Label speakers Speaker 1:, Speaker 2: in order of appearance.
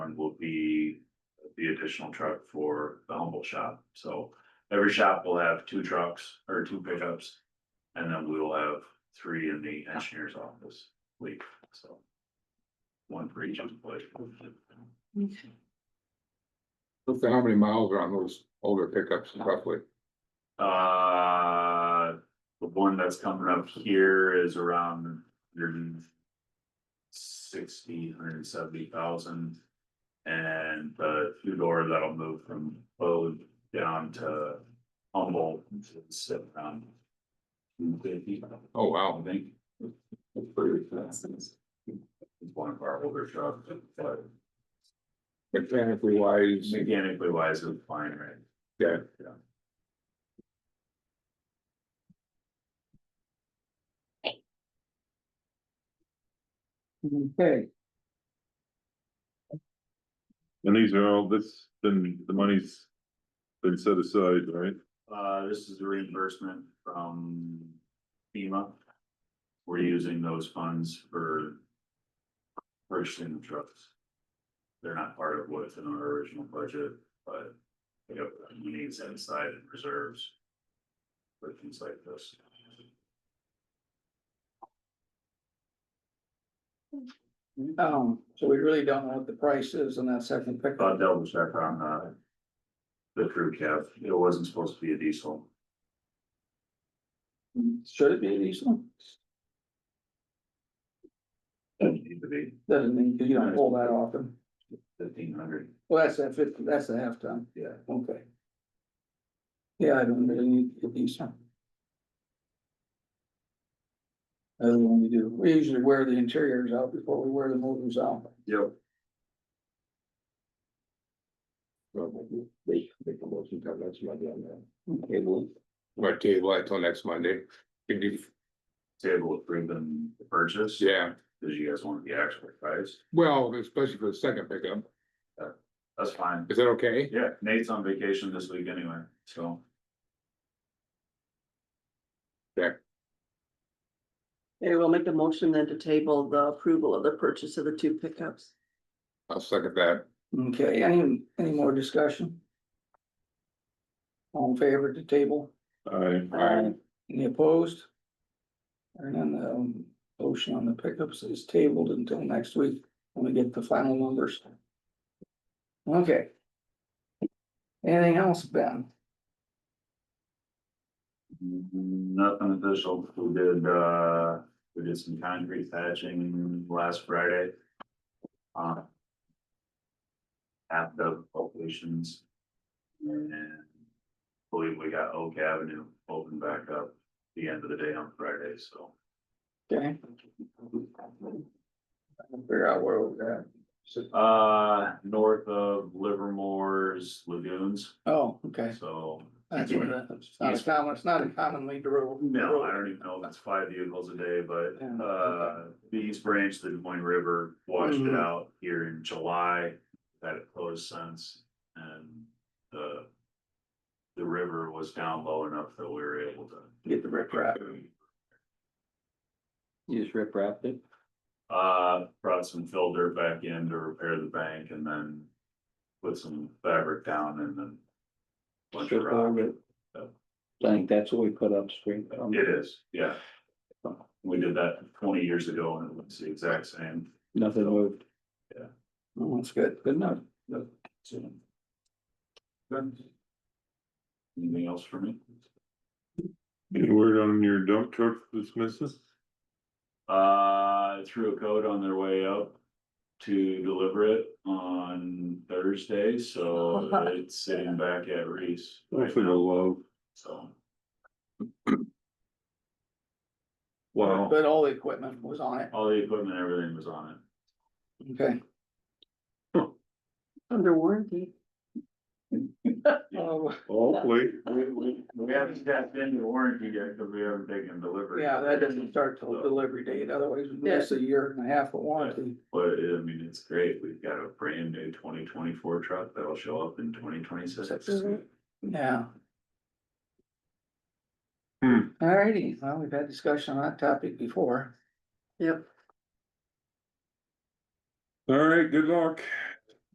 Speaker 1: the additional truck for the Humboldt shop, so every shop will have two trucks or two pickups. And then we will have three in the engineer's office week, so. One for each employee.
Speaker 2: Look at how many miles are on those older pickups roughly.
Speaker 1: Uh, the one that's coming up here is around hundred and sixty, hundred and seventy thousand. And the two door that'll move from Bode down to Humboldt, is around two fifty,
Speaker 2: Oh,
Speaker 1: I
Speaker 2: wow.
Speaker 1: think. It's pretty fast. It's one of our older trucks, but
Speaker 2: Mechanically wise,
Speaker 1: mechanically wise, it's fine, right?
Speaker 2: Yeah.
Speaker 1: Yeah.
Speaker 3: Okay,
Speaker 4: And these are all, this, then the money's been set aside, right?
Speaker 1: Uh, this is a reimbursement from FEMA. We're using those funds for. Purchasing the trucks. They're not part of what's in our original budget, but. We have needs inside and reserves. For things like this.
Speaker 3: um, so we really don't know what the price is on that second
Speaker 1: About
Speaker 3: pickup.
Speaker 1: double check on, uh. The crew cab, it wasn't supposed to be a diesel.
Speaker 3: Should it be a diesel?
Speaker 1: It needed to be
Speaker 3: Doesn't mean, cause you don't pull that often.
Speaker 1: fifteen hundred,
Speaker 3: Well, that's that fifty, that's the half ton.
Speaker 1: yeah.
Speaker 3: Okay. Yeah, I don't really need to do some. Other than we do, we usually wear the interiors out before we wear the motors out.
Speaker 1: Yep.
Speaker 5: They make a motion to that's my idea on that. Okay, well,
Speaker 2: what table until next Monday. Can you,
Speaker 1: Table approving the purchase.
Speaker 2: yeah,
Speaker 1: Cause you guys want the actual price,
Speaker 2: well, especially for the second pickup.
Speaker 1: that's fine.
Speaker 2: Is that okay?
Speaker 1: Yeah, Nate's on vacation this week anyway, so.
Speaker 6: Okay, we'll make a motion then to table the approval of the purchase of the two pickups.
Speaker 2: I'll second that.
Speaker 3: Okay, any, any more discussion? All in favor at the table,
Speaker 4: I,
Speaker 2: Aye.
Speaker 3: any opposed? And then the motion on the pickups is tabled until next week, when we get the final numbers. Okay. Anything else, Ben?
Speaker 1: Nothing official, we did, uh, we did some concrete patching last Friday. Uh. At the locations. And believe we got Oak Avenue open back up the end of the day on Friday, so.
Speaker 3: Okay. Figure out where we're at.
Speaker 1: Uh, north of Livermore's lagoons,
Speaker 3: Oh, okay,
Speaker 1: so.
Speaker 3: that's what that, it's not a common, it's not a commonly drove.
Speaker 1: No, I don't even know if it's five vehicles a day, but
Speaker 3: Yeah.
Speaker 1: uh, the East Branch, the Des Moines River washed it
Speaker 5: Mm-hmm.
Speaker 3: Mhm.
Speaker 1: out here in July. That it closed since and the. The river was down low enough that we were able to.
Speaker 3: Get the rip rap.
Speaker 5: you just rip wrapped it.
Speaker 1: Uh, brought some filter back in to repair the bank and then. Put some fabric down and then. Bunch of
Speaker 5: Strip all
Speaker 1: rock.
Speaker 5: of it. I think that's what we put um, upstream. from.
Speaker 1: It is, yeah. We did that twenty years ago and it looks the exact same.
Speaker 5: Nothing moved.
Speaker 3: Oh, That's good.
Speaker 5: Good enough.
Speaker 1: Soon. Good. Anything else for me?
Speaker 4: any word on your dump truck that's missing?
Speaker 1: Uh, I threw a code on their way up to deliver it on Thursday, so it's sitting back at Reese.
Speaker 4: I
Speaker 1: right
Speaker 4: think I
Speaker 1: now,
Speaker 4: love,
Speaker 1: So,
Speaker 4: wow,
Speaker 3: But all the equipment was on it,
Speaker 1: all the equipment, everything was on it.
Speaker 3: okay.
Speaker 6: Under warranty.
Speaker 3: Oh,
Speaker 4: hopefully,
Speaker 1: We, we, we haven't tapped into warranty yet, because we haven't taken delivery.
Speaker 3: yeah, that doesn't start till delivery date, otherwise we miss a year and a half of warranty.
Speaker 1: But I mean, it's great. We've got a brand new twenty twenty-four truck that'll show up in twenty twenty-six.
Speaker 3: Mm-hmm.
Speaker 6: Mhm.
Speaker 3: Yeah.
Speaker 4: Hmm.
Speaker 3: Alrighty, well, we've had discussion on that topic before.
Speaker 6: Yep.
Speaker 4: all right, good luck.